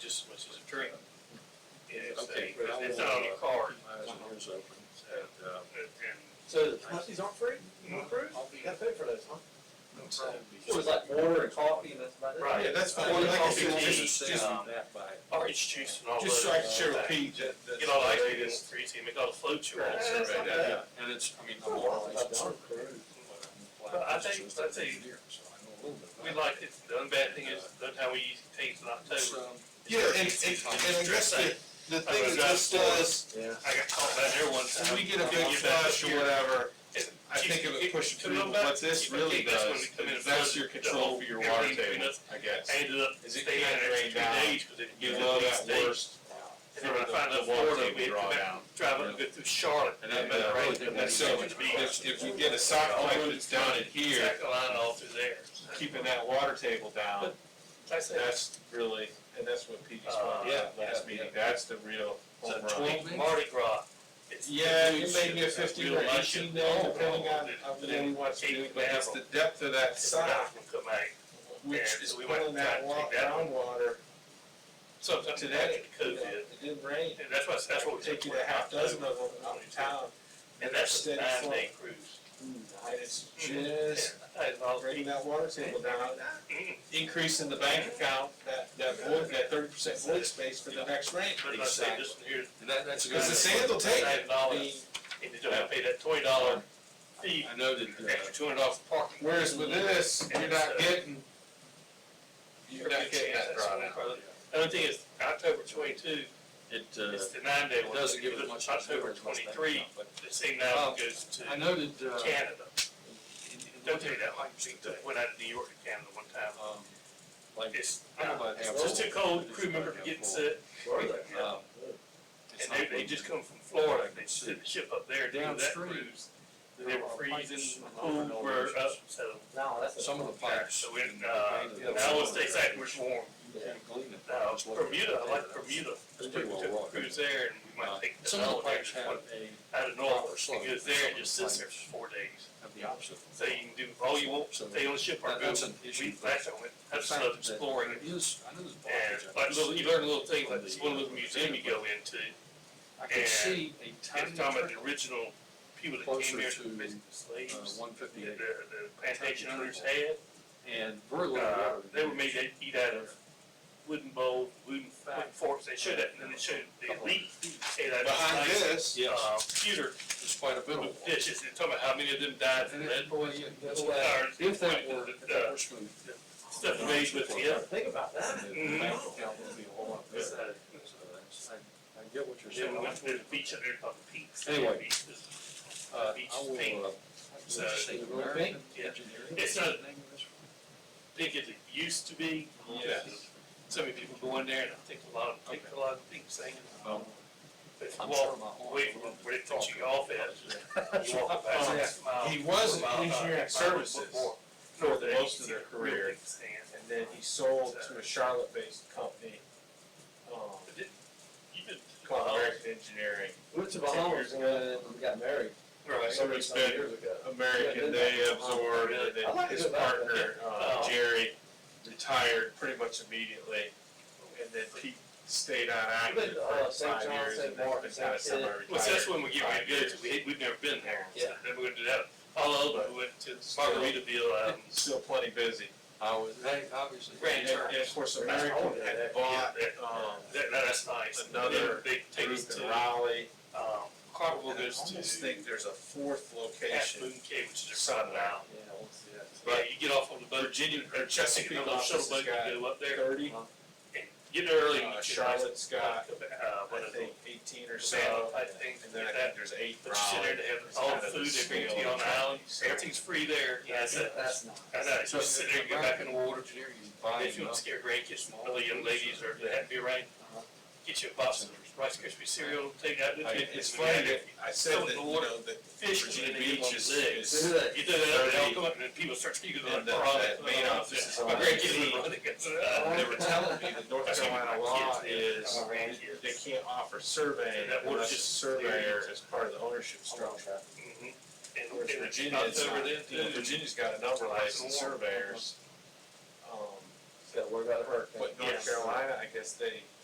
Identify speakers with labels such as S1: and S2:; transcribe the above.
S1: just as much as a
S2: Drink.
S1: Yeah, it's
S3: Okay,
S1: that-
S3: but I
S1: it's
S3: will,
S1: on your
S3: uh,
S1: card.
S3: Mine's open. And, uh,
S1: And
S4: So the slushies aren't free? Not free? You gotta pay for those, huh?
S1: so-
S4: It was like water and coffee and that's about it.
S1: Right.
S3: Yeah, that's fine.
S4: Water,
S3: Like I
S4: coffee,
S3: said,
S4: and
S3: just-
S4: juice,
S3: just-
S4: um, that by-
S1: orange juice and all those.
S3: Just so I can share
S1: things.
S3: with Pete that, that's.
S1: You know, like
S3: the
S1: they didn't
S3: latest.
S1: treat him, they got a float you on.
S4: Yeah,
S1: so
S4: that's
S1: right
S4: not
S1: now-
S4: bad.
S3: Yeah, and it's, I mean,
S4: It's
S3: I'm
S4: not
S3: all.
S4: like dark cruise.
S1: I think- I think- We liked it, the unbad thing is, that's how we used to take it in October.
S3: Yeah, and, and, and I guess the, the thing that this does,
S4: Yeah.
S1: I got caught down there one time.
S3: when we get a big
S1: You back up
S3: flush or
S1: here.
S3: whatever,
S1: And
S3: I
S1: you-
S3: think it
S1: you-
S3: would push it
S1: come on
S3: through,
S1: back,
S3: what this
S1: you
S3: really
S1: think that's when
S3: does,
S1: we come in and
S3: is that's
S1: flood
S3: your
S1: the
S3: control
S1: whole-
S3: for your water
S1: everything between
S3: table,
S1: us.
S3: I guess.
S1: I ended up
S3: Is it
S1: staying out there
S3: can't
S1: for two
S3: drain down.
S1: days, because it
S3: You
S1: gives
S3: know
S1: up
S3: that
S1: these days.
S3: worst.
S1: And then when I find out
S3: The water
S1: Florida,
S3: table
S1: we
S3: draw
S1: come back,
S3: down.
S1: drive up and go through Charlotte.
S3: And that,
S1: come back
S3: uh,
S1: right,
S3: really
S1: come
S3: did
S1: back
S3: that so
S1: to
S3: much.
S1: me.
S3: If, if we get a sock pipe that's down in here,
S1: Exact line all through there.
S3: keeping that water table down,
S1: Like I said,
S3: that's really, and that's what Pete
S1: Uh,
S3: explained
S1: yeah,
S3: at last
S1: yeah, yeah.
S3: meeting, that's the real
S1: it's a
S3: home run.
S1: twelve Mardi Gras. It's-
S3: Yeah,
S1: it's-
S3: it may be a
S1: it's
S3: fifteen
S1: real Oh,
S3: or
S1: life.
S3: eighteen day, depending on,
S1: It's-
S3: on when we want to do, but it's the depth of that
S1: it's not
S3: sock,
S1: gonna come out.
S3: which
S1: And
S3: is
S1: so we went
S3: pulling
S1: and tried
S3: that
S1: to
S3: wa-
S1: take that one.
S3: groundwater
S1: So that's
S3: to
S1: what that
S3: that.
S1: COVID,
S3: It didn't rain,
S1: and that's why, that's what we took.
S3: take you a half dozen of them out of town,
S1: And that's a
S3: Steady
S1: nine
S3: flow.
S1: day cruise.
S3: and it's just
S1: Yeah, I thought it
S3: bringing that water table down.
S1: was- mm,
S3: increasing the bank account, that, that void, that thirty percent void space for the next rain.
S1: But I say this one here,
S5: And that, that's a good.
S3: Because the sand will take it. I mean,
S1: $9, and you don't have to pay that twenty dollar fee,
S5: I know that,
S1: extra
S5: uh,
S1: two hundred dollars for parking.
S3: Whereas with this, you're not getting, you're not getting that drawn out.
S1: The Other thing is, October twenty-two,
S5: it, uh,
S1: it's the nine day
S5: it
S1: one.
S5: doesn't give
S1: If you
S5: it
S1: look
S5: much.
S1: at October
S5: it doesn't give it much
S1: twenty-three,
S5: background,
S1: the same now
S5: Oh,
S1: goes to
S5: But I noted, uh,
S1: Canada.
S5: in- in
S1: Don't
S5: looking
S1: tell you
S5: at
S1: that, like,
S5: Hawkins today,
S1: went out to New York and Canada one time.
S5: um, Like,
S1: It's,
S5: I don't know about
S1: it's just too
S5: Apple.
S1: cold,
S5: It's
S1: crew
S5: about
S1: member
S5: Apple.
S1: getting sick,
S4: Where are they?
S1: Yeah.
S5: um, it's
S1: and
S5: not
S1: they, they
S5: like-
S1: just come from Florida, they sent the ship up there, to do that
S5: Downstream.
S1: cruise.
S5: there
S1: They were
S5: are pipes
S1: freezing,
S5: and
S1: cold,
S5: all
S1: were
S5: those.
S1: up, so.
S4: No, that's a.
S5: Some of the pipes.
S1: So we, uh,
S5: and the paint
S1: now
S5: of
S1: let's
S5: the-
S1: say exactly where it's warm.
S5: You can't glean it.
S1: Now,
S5: Just look at
S1: Bermuda,
S5: it.
S1: I like Bermuda,
S5: It's
S1: took,
S5: pretty well
S1: took a
S5: rocked.
S1: cruise there and we
S5: Uh,
S1: might take the
S5: Some of the
S1: dollar there,
S5: pipes have a,
S1: out of
S5: proper
S1: Norfolk,
S5: slope.
S1: it goes there and
S5: Some
S1: just
S5: of the
S1: sits there
S5: pipes.
S1: for four days.
S5: have the opposite.
S1: So you can do all you want,
S5: So
S1: stay on the ship or
S5: that-
S1: go,
S5: that's an
S1: we,
S5: issue.
S1: last time we went, I
S5: The
S1: just
S5: fact
S1: loved
S5: that
S1: exploring it.
S5: there is- I know there's
S1: And
S5: blockages. I
S1: like
S5: can
S1: little,
S5: see
S1: you learn
S5: it
S1: little things,
S5: from
S1: like this
S5: the,
S1: one
S5: uh,
S1: little museum you go into,
S5: I can
S1: and
S5: see a tiny
S1: it's talking about the
S5: trickle,
S1: original people that
S5: Closer
S1: came here
S5: to,
S1: from basically slaves.
S5: uh, one
S1: The,
S5: fifty-eight,
S1: the plantation
S5: Turkey
S1: owners
S5: triple.
S1: had,
S5: and very little
S1: uh,
S5: water.
S1: they were made to eat out of wooden bowls, wooden wooden forks, they showed that, and then they showed the elite ate out of
S3: Behind
S1: nice,
S3: this,
S5: Uh-huh. Yes.
S1: uh, pewter
S5: There's quite a bit of water.
S1: dishes, and talking about how many of them died from
S5: And
S1: lead
S5: it- boy, yeah, that's what-
S1: Or-
S5: If that were,
S1: the-
S5: if that were smooth.
S1: stuff made with the other.
S4: Think about that.
S1: Mm-hmm.
S5: The bank account would be a whole lot better.
S1: Just, uh,
S5: So that's- I, I get what you're
S1: Then
S5: saying.
S1: we
S5: Uh,
S1: went to the beach up there called the Peaks.
S5: Anyway.
S1: Peaks is-
S5: I
S1: beach thing.
S5: will, uh.
S1: So,
S5: say
S4: the
S5: American
S4: bank?
S1: Yeah.
S5: engineering.
S1: It's not-
S5: Name of this one?
S1: big as it used to be.
S3: Yes.
S1: So many people go in there and I think a lot of, think a lot of people saying,
S3: Oh.
S5: Um,
S1: but if you
S5: I'm sure
S1: walk
S5: my aunt
S1: away from
S5: loved
S1: where they
S5: to
S1: took
S5: talk
S1: you off
S5: about
S1: at, you walk about
S3: Oh, yeah.
S1: six miles.
S3: he was in
S1: four miles,
S3: engineering
S1: uh,
S3: services
S1: before-
S3: for
S1: before
S3: most of
S1: they-
S3: their career.
S1: Stand.
S3: And then he sold to a Charlotte-based company, um,
S1: But did- You did.
S3: called American Engineering.
S4: We went to Bahamas when we got married.
S1: Right.
S3: So it's
S4: Some
S3: been-
S4: years ago.
S3: American, they absorbed, and
S4: I
S3: then
S4: like
S3: his
S4: it about that.
S3: partner, uh, Jerry, retired pretty much immediately. And then Pete stayed on active
S4: uh,
S3: for
S4: St.
S3: five
S4: John,
S3: years,
S4: St.
S3: and then
S4: Martin,
S3: been kind
S4: St.
S3: of
S4: Sid.
S3: semi-retired.
S1: Well, so that's when we get ready to go,
S3: Five
S1: to. we, we've never been there. so
S4: Yeah.
S1: Then we're gonna do that, all over, we went to Margaritaville, um,
S3: Still plenty busy.
S5: I was, hey, obviously.
S1: Grand
S3: And,
S1: Turk.
S3: and of course,
S4: American
S3: American had
S4: had
S3: bought,
S1: that-
S3: um,
S1: That, that's nice.
S3: Another
S1: They they take us
S3: group
S1: to,
S3: in Raleigh.
S1: um, Carnival
S3: And I
S1: goes to
S3: almost think there's a fourth
S1: Half
S3: location.
S1: Moon Cay, which is a private island.
S4: Yeah, I want to see that.
S1: Yeah,
S3: But
S1: you get off on the boat.
S3: Virginia, or
S1: Take
S3: Chesapeake
S1: another shuttle
S3: office
S1: boat,
S3: has got
S1: you go up there
S3: thirty.
S1: and get there early.
S3: Uh, Charlotte's got,
S1: Uh,
S3: I
S1: what is
S3: think,
S1: it?
S3: eighteen or so.
S1: Savannah type thing,
S3: And then I
S1: like
S3: think
S1: that.
S3: there's eight
S1: But you sit there,
S3: Raleigh.
S1: they have all the food, they bring it to you on the island, everything's free there. That's it.
S4: That's nice.
S1: I know, you just sit there and go back in the water.
S5: Engineering is
S1: If you
S5: buying
S1: want to
S5: up.
S1: scare grandkids, from all the young ladies or they have to be around, get you a box of Rice Krispie cereal, take that with
S3: I-
S1: you.
S3: It's funny that I said
S1: Fill
S3: that,
S1: the
S3: you
S1: water,
S3: know, that
S1: fish, and
S3: Virginia
S1: they
S3: Beach
S1: get
S3: is,
S1: on the legs.
S3: is,
S1: You do that, they'll come up and then people start speaking about
S3: and the,
S1: the
S3: that main office is.
S1: My
S3: on
S1: grandkids
S3: Virginia.
S1: would run against it.
S3: And They were telling me that North
S1: That's gonna be
S3: Carolina
S1: my
S3: law
S1: kids, yeah.
S3: is,
S1: My grandkids.
S3: they can't offer survey
S1: That water's
S3: unless a
S1: just clear.
S3: surveyor is part of the ownership structure.
S1: Mhm. And
S3: Whereas
S1: and
S3: Virginia, it's
S1: October
S3: not,
S1: then,
S3: you know,
S1: too.
S3: Virginia's got a number of licensed surveyors. Um,
S4: Gotta worry about a hurricane.
S3: But North
S1: Yes.
S3: Carolina, I guess they